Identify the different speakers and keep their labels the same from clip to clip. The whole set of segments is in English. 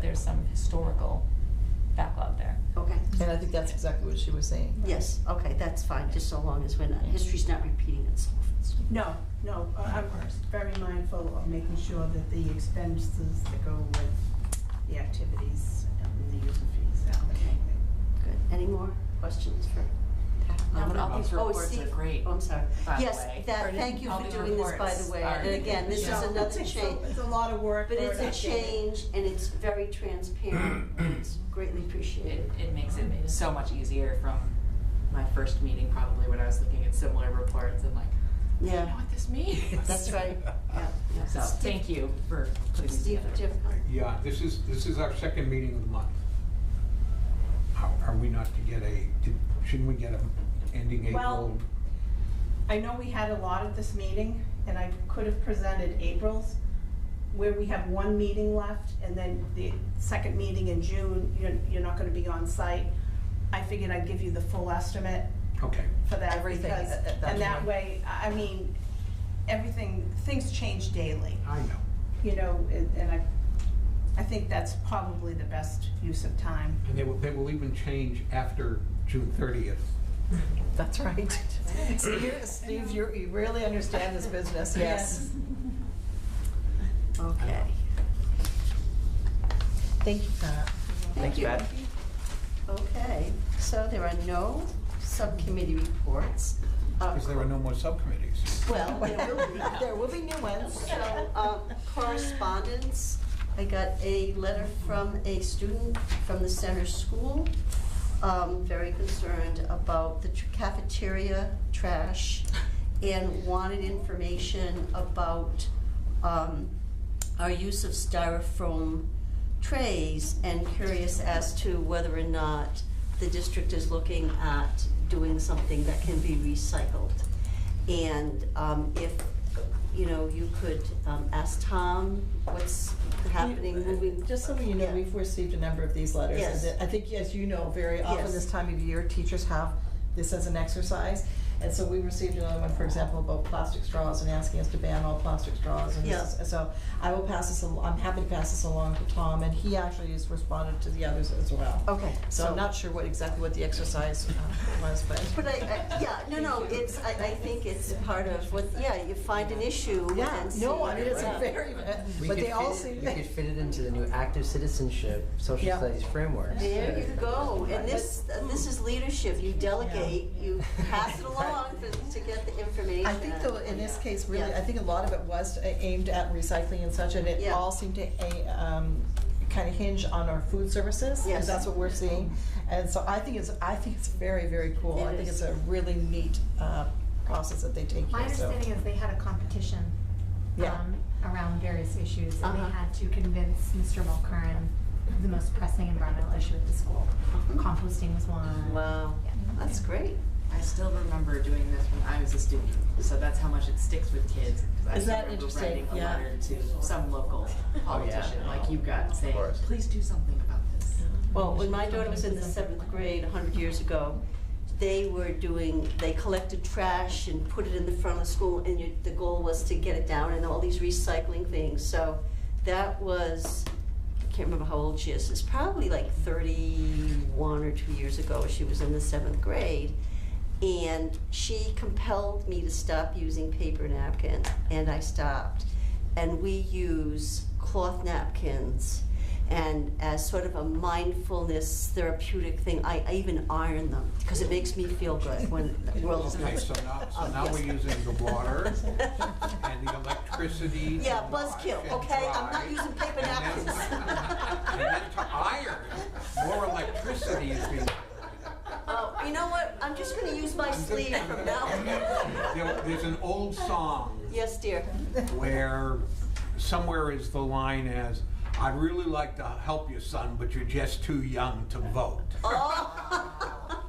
Speaker 1: there's some historical backlog there.
Speaker 2: Okay,
Speaker 3: And I think that's exactly what she was saying.
Speaker 2: yes, okay, that's fine, just so long as we're not, history's not repeating itself.
Speaker 4: No, no, uh, I'm very mindful of making sure that the expenses that go with the activities and the user fees. are-
Speaker 2: Okay. Good, any more questions for?
Speaker 5: No, but
Speaker 2: Um,
Speaker 5: all these
Speaker 2: oh,
Speaker 5: reports are
Speaker 2: Steve-
Speaker 5: great,
Speaker 2: Oh, I'm sorry.
Speaker 5: by the
Speaker 2: Yes,
Speaker 5: way.
Speaker 2: that,
Speaker 1: Or
Speaker 2: thank you
Speaker 1: all
Speaker 2: for
Speaker 1: these
Speaker 2: doing this, by
Speaker 1: reports
Speaker 2: the way,
Speaker 1: are-
Speaker 2: and again, this is
Speaker 1: Yeah.
Speaker 2: another
Speaker 4: It's a-
Speaker 2: change.
Speaker 4: It's a lot of work.
Speaker 2: But
Speaker 4: for
Speaker 2: it's
Speaker 4: an
Speaker 2: a
Speaker 4: activity.
Speaker 2: change and it's very transparent, and it's greatly
Speaker 5: It,
Speaker 2: appreciated.
Speaker 5: it makes it so much easier from my first meeting, probably when I was looking at similar reports and like, I don't know
Speaker 2: Yeah,
Speaker 5: what this means.
Speaker 2: that's right, yeah, yeah.
Speaker 5: So, thank you for putting this
Speaker 2: Steve,
Speaker 5: together.
Speaker 2: do you have a comment?
Speaker 6: Yeah, this is, this is our second meeting of the month. How are we not to get a, did- shouldn't we get a ending
Speaker 4: Well-
Speaker 6: April?
Speaker 4: I know we had a lot at this meeting, and I could have presented April's, where we have one meeting left, and then the second meeting in June, you're, you're not gonna be on site. I figured I'd give you the full estimate
Speaker 6: Okay,
Speaker 4: for that.
Speaker 3: Everything
Speaker 4: because-
Speaker 3: at- at that
Speaker 4: And that
Speaker 3: point.
Speaker 4: way, I I mean, everything, things change daily,
Speaker 6: I know.
Speaker 4: you know, and and I, I think that's probably the best use of time.
Speaker 6: And they will, they will even change after June thirtieth.
Speaker 3: That's right. Steve, Steve, you're- you really understand this business, yes.
Speaker 2: Okay,
Speaker 3: Thank you, Pat.
Speaker 2: thank you. Okay, so there are no subcommittee reports. Uh,
Speaker 6: Because there are no more subcommittees.
Speaker 2: Well, there will be.
Speaker 3: There will be new ones. uh,
Speaker 2: So, um, correspondence, I got a letter from a student from the center school, um, very concerned about the tr- cafeteria trash and wanted information about, um, our use of styrofoam trays and curious as to whether or not the district is looking at doing something that can be recycled. And um, if, you know, you could um, ask Tom what's happening, moving.
Speaker 3: Just so you know,
Speaker 2: Yeah.
Speaker 3: we've received a number of these letters.
Speaker 2: Yes.
Speaker 3: And I think, as you know, very often
Speaker 2: Yes.
Speaker 3: this time of year, teachers have this as an exercise. And so we received another one, for example, about plastic straws and asking us to ban all plastic straws. And this
Speaker 2: Yeah.
Speaker 3: is- so I will pass this, al- I'm happy to pass this along to Tom, and he actually has responded to the others as well.
Speaker 2: Okay,
Speaker 3: So I'm not sure what, exactly what the exercise uh, was, but.
Speaker 2: But I, I, yeah, no, no, it's, I, I think it's part of what, yeah, you find an issue
Speaker 3: Yeah,
Speaker 2: and see.
Speaker 3: no, I mean, it's a
Speaker 2: Yeah.
Speaker 3: very,
Speaker 7: We
Speaker 3: but
Speaker 7: could
Speaker 3: they all
Speaker 7: fit it-
Speaker 3: seem.
Speaker 7: We could fit it into the new active citizenship, social
Speaker 3: Yeah.
Speaker 7: studies Oh, framework.
Speaker 2: There you go, and this, this is leadership, you delegate, you pass it along for- to get the information.
Speaker 3: I think though, in this case, really,
Speaker 2: Yeah.
Speaker 3: I think a lot of it was a- aimed at recycling and such, and it
Speaker 2: Yeah.
Speaker 3: all seemed to a- um, kind of hinge on our food services, 'cause
Speaker 2: Yes.
Speaker 3: that's what we're seeing. And so I think it's, I think it's very, very cool.
Speaker 2: It
Speaker 3: I think
Speaker 2: is.
Speaker 3: it's a really neat uh, process that they take
Speaker 8: My
Speaker 3: here, so.
Speaker 8: understanding is they had a competition
Speaker 3: Yeah.
Speaker 8: um, around various issues, and
Speaker 2: Uh-huh.
Speaker 8: they had to convince Mr. Mulcairn of the most pressing environmental issue at the school.
Speaker 3: Uh-huh.
Speaker 8: Composting was one.
Speaker 2: Wow,
Speaker 8: Yeah.
Speaker 2: that's great.
Speaker 5: I still remember doing this when I was a student, so that's how much it sticks with kids. 'cause I
Speaker 3: Is
Speaker 5: still
Speaker 3: that
Speaker 5: remember
Speaker 3: interesting?
Speaker 5: writing a
Speaker 3: Yeah.
Speaker 5: letter to some local politician, like you got, saying,
Speaker 7: course.
Speaker 5: please do something about this.
Speaker 2: Well, when my daughter was in the seventh grade, a hundred years ago, they were doing, they collected trash and put it in the front of school, and you, the goal was to get it down and all these recycling things, so that was, I can't remember how old she is, it's probably like thirty-one or two years ago, she was in the seventh grade. And she compelled me to stop using paper napkins, and I stopped. And we use cloth napkins, and as sort of a mindfulness therapeutic thing, I, I even iron them because it makes me feel good when the world is
Speaker 6: Okay,
Speaker 2: not.
Speaker 6: so now, so
Speaker 2: Oh,
Speaker 6: now
Speaker 2: yes.
Speaker 6: we're using the water and the electricity. to
Speaker 2: Yeah,
Speaker 6: wash
Speaker 2: buzzkill,
Speaker 6: and
Speaker 2: okay? I'm
Speaker 6: dry.
Speaker 2: not using paper napkins.
Speaker 6: And then- And then to iron, more electricity is being.
Speaker 2: Oh, you know what? I'm just going to use my sleeve from now
Speaker 6: There-
Speaker 2: on.
Speaker 6: There's an old song
Speaker 2: Yes, dear.
Speaker 6: where somewhere is the line as, I'd really like to help you, son, but you're just too young to vote.
Speaker 2: Oh.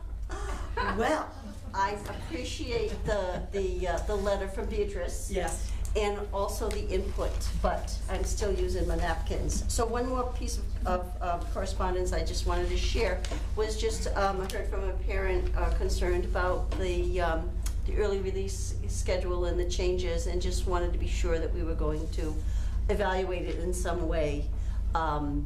Speaker 2: Well, I appreciate the, the, uh, the letter from Beatrice.
Speaker 3: Yes.
Speaker 2: and also the input, but I'm still using my napkins. So one more piece of- of uh, correspondence I just wanted to share was just, um, I heard from a parent uh, concerned about the, um, the early release schedule and the changes, and just wanted to be sure that we were going to evaluate it in some way. um,